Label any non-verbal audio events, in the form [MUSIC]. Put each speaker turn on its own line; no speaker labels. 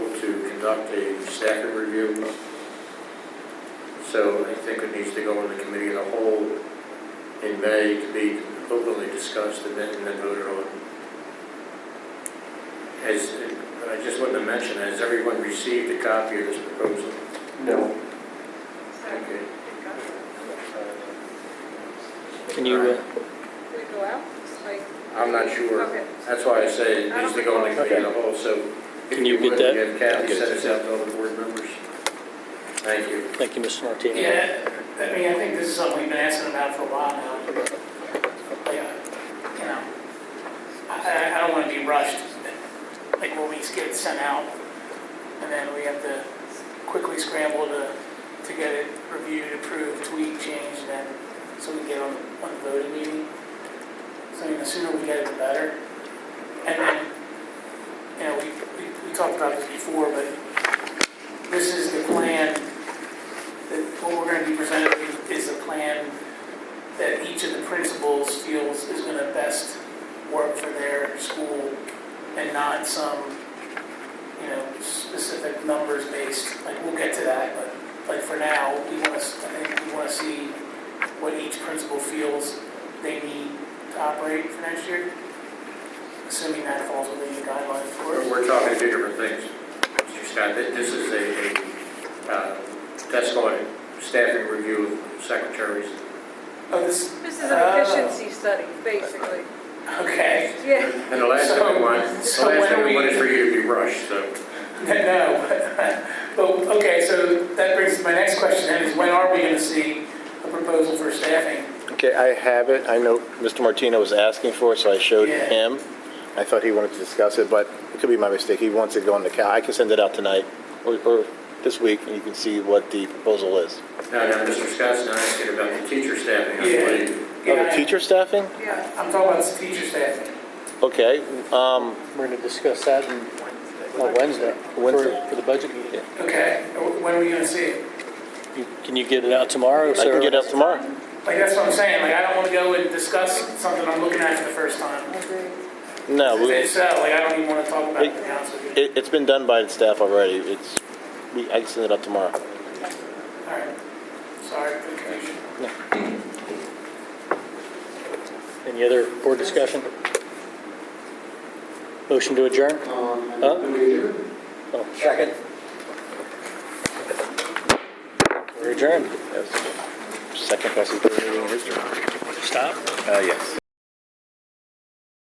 conduct a staffing review. So I think it needs to go in the committee of the whole in May to be openly discussed and then and then voted on. Has, I just wanted to mention, has everyone received a copy of this proposal?
No.
Okay.
Can you, uh,
Did it go out? Like,
I'm not sure.
okay.
That's why I say it needs to go in the committee of the whole, so. if
Can you get
would,
that?
yeah,
I'll
Kathy
get
sent
it.
us out to all the board members. Thank you.
thank you, Mr. Martini.
Yeah, I mean, I think this is something we've been asking about for a while now. Yeah, You know, I, I- I don't want to be rushed, like when we get it sent out, and then we have to quickly scramble to, to get it reviewed, approved, tweaked, changed, and then, so we can get on, on the voting meeting. So, I mean, the sooner we get it, the better. And then, you know, we, we- we talked about this before, but this is the plan that what we're gonna be presenting is a plan that each of the principals feels is gonna best work for their school and not some, you know, specific numbers based, like, we'll get to that, but, like, for now, we wanna, s- I think we wanna see what each principal feels they need to operate for next year, assuming that falls within the guidelines for
We're,
it.
we're talking two different things, Mr. Scott. Th- This is a, a, uh, that's called a staffing review of secretaries.
Oh, this,
This is an efficiency study, basically.
okay.
Yeah,
And the last thing we want, the
So- so
last thing we
when are
want
we-
is for you to be rushed, so.
[LAUGHS] No, but, okay, so that brings to my next question then, is when are we going to see a proposal for staffing?
Okay, I have it. I know Mr. Martino was asking for it, so I showed
Yeah.
him. I thought he wanted to discuss it, but it could be my mistake. He wants it going to Cal. I can send it out tonight or, or this week, and you can see what the proposal is.
Now, now, Mr. Scott's not asking about the teacher staffing, I
Yeah.
believe.
Oh, the teacher staffing?
yeah.
I'm talking about teacher staffing.
Okay, um,
We're going to discuss that on on Wednesday. for-
Wednesday.
For the budget meeting.
Okay, uh, when are we going to see it?
You- Can you get it out tomorrow,
I can
sir?
get it up tomorrow.
Like, that's what I'm saying, like, I don't want to go and discuss something I'm looking at for the first time.
No, we,
If so, like, I don't even want to talk about it, to be honest with you.
it, it's been done by the staff already. It's, we, I can send it up tomorrow.
All right, sorry for the confusion.
Any other board discussion? Motion to adjourn? Huh? Oh,
Second.
We're adjourned.
Yes. Second best in history.
Stop.
Uh, yes.